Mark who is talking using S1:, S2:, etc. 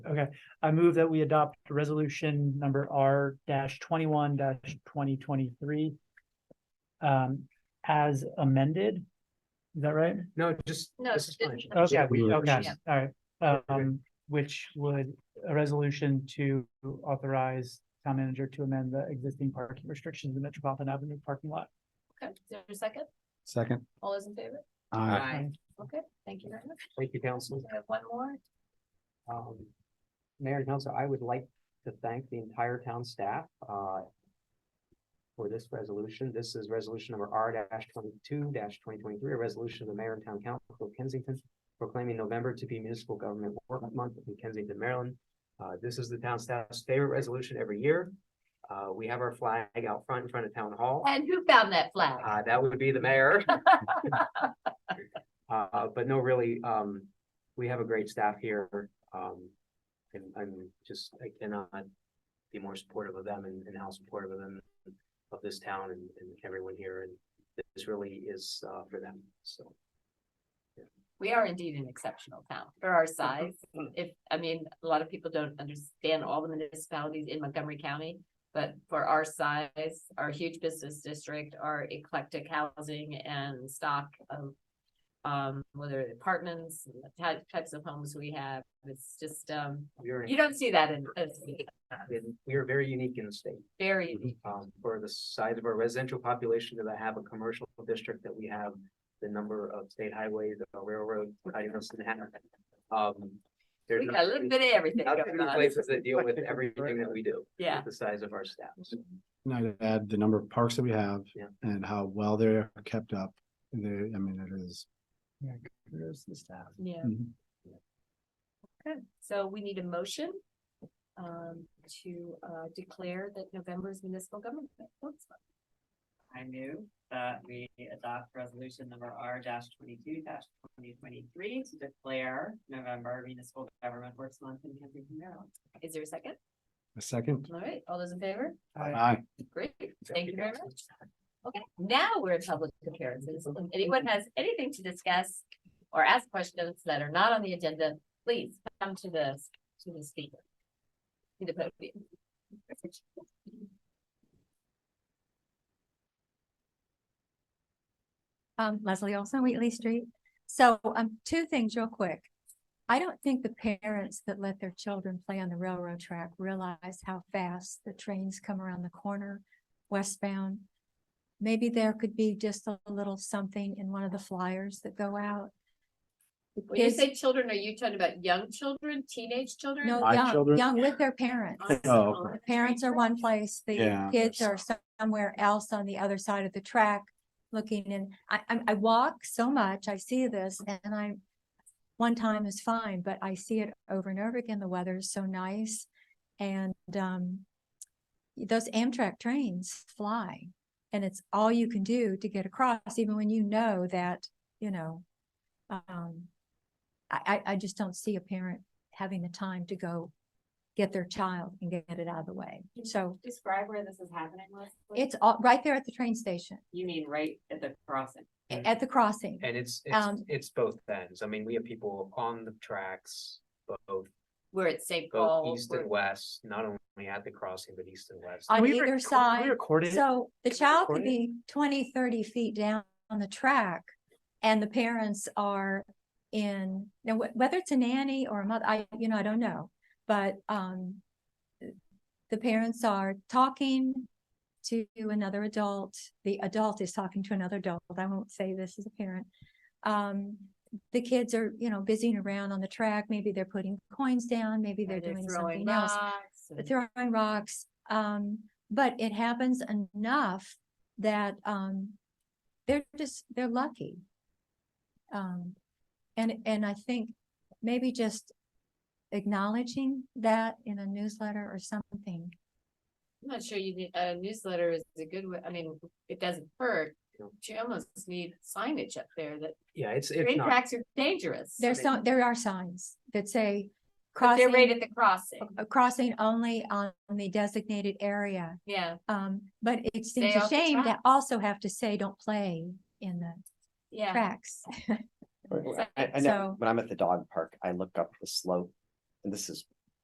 S1: Okay, I move that we adopt resolution number R dash twenty-one dash twenty twenty-three. Um, as amended, is that right?
S2: No, just,
S3: No,
S2: this is
S3: it-
S2: fine.
S1: Okay,
S2: Yeah, we-
S1: okay,
S3: Yeah.
S1: all right, um, which would, a resolution to authorize town manager to amend the existing parking restrictions in Metropolitan Avenue parking lot.
S3: Okay, is there a second?
S4: Second.
S3: All those in favor?
S4: Aye.
S2: Aye.
S3: Okay, thank you very much.
S2: Thank you, council.
S3: We have one more.
S2: Um, Mayor and council, I would like to thank the entire town staff, uh, for this resolution. This is resolution number R twenty-two twenty twenty-three, a resolution of the mayor and town council of Kensington proclaiming November to be municipal government work month in Kensington, Maryland. Uh, this is the town staff's favorite resolution every year. Uh, we have our flag out front in front of town hall.
S3: And who found that flag?
S2: Uh, that would be the mayor. Uh, but no, really, um, we have a great staff here, um, and I'm just, I cannot be more supportive of them and, and how supportive of them, of this town and, and everyone here, and this really is, uh, for them, so.
S3: We are indeed an exceptional town for our size.
S2: Mm-hmm.
S3: If, I mean, a lot of people don't understand all the municipalities in Montgomery County. But for our size, our huge business district, our eclectic housing and stock of. Um, whether apartments, and the ty- types of homes we have, it's just, um,
S2: We're,
S3: you don't see that in, it's
S2: we're very unique in the state.
S3: very unique.
S2: um, for the size of our residential population, that I have a commercial district that we have the number of state highways, the railroad, I don't know, Manhattan. Um, there's
S3: We got a little bit of everything
S2: not too
S3: going
S2: many
S3: on.
S2: places that deal with everything that we do. with
S3: Yeah.
S2: The size of our staff. So,
S4: And I'd add the number of parks that we have
S2: Yeah.
S4: and how well they're kept up. And they I mean, it is. Mm-hmm.
S1: There's the staff.
S3: Yeah, okay. So we need a motion um to uh declare that November is municipal government. Works Month.
S5: I move that we adopt resolution number R twenty-two twenty twenty-three to declare November municipal government works month in Kensington, Maryland.
S3: Is there a second?
S4: A second.
S3: All right, all those in favor?
S4: Aye.
S3: Great, thank you very much. Okay, now we're in public appearances. If anyone has anything to discuss or ask questions that are not on the agenda, please come to the to the speaker. To the podium.
S6: Um, Leslie Olson, Wheatley Street. So, um, two things real quick. I don't think the parents that let their children play on the railroad track realize how fast the trains come around the corner westbound. Maybe there could be just a little something in one of the flyers that go out.
S3: When you
S6: Is-
S3: say children, are you talking about young children, teenage children?
S6: No,
S4: My
S6: young,
S4: children-
S6: young with their parents.
S4: Oh,
S6: The parents are one place, the
S4: Yeah.
S6: kids are somewhere else on the other side of the track looking and I, I, I walk so much, I see this and I, one time is fine, but I see it over and over again. The weather is so nice. And, um, those Amtrak trains fly and it's all you can do to get across, even when you know that, you know, um, I, I, I just don't see a parent having the time to go get their child and get it out of the way. So
S5: Describe where this is happening, Leslie.
S6: it's all, right there at the train station,
S5: You mean right at the crossing?
S6: a- at the crossing.
S2: And it's, it's,
S6: Um,
S2: it's both ends. I mean, we have people on the tracks, both,
S3: We're at St.
S2: both
S3: Paul.
S2: east
S3: we're-
S2: and west, not only at the crossing, but east and west.
S6: On
S1: Can we
S6: either
S1: rec- can we
S6: side,
S1: Record it.
S6: So the
S1: Can we
S6: child
S1: record
S6: could
S1: it?
S6: be 20, 30 feet down on the track and the parents are in, now wh- whether it's a nanny or a mother, I, you know, I don't know. But um, the parents are talking to another adult. The adult is talking to another adult. I won't say this as a parent. Um, the kids are, you know, busying around on the track. Maybe they're putting coins down, maybe they're
S3: Are they
S6: doing
S3: throwing
S6: something else
S3: rocks and-
S6: throwing rocks. Um, but it happens enough that, um, they're just, they're lucky. Um, and, and I think maybe just acknowledging that in a newsletter or something.
S3: I'm not sure you need, a newsletter is a good way, I mean, it doesn't hurt,
S2: No.
S3: but you almost need signage up there that
S2: Yeah, it's, it's
S3: train
S2: not,
S3: tracks are dangerous.
S6: There's some, there are signs that say
S3: But They're right at
S6: crossing,
S3: the crossing,
S6: uh, crossing only on the designated area.
S3: yeah,
S6: Um, but it seems
S3: Stay
S6: a
S3: off the
S6: shame to
S3: tracks.
S6: also have to say, don't play in the
S3: yeah.
S6: tracks.
S7: Right,
S3: It's
S7: well, I,
S3: like-
S7: I know,
S6: so-
S7: when I'm at the dog park, I look up the slope, and this is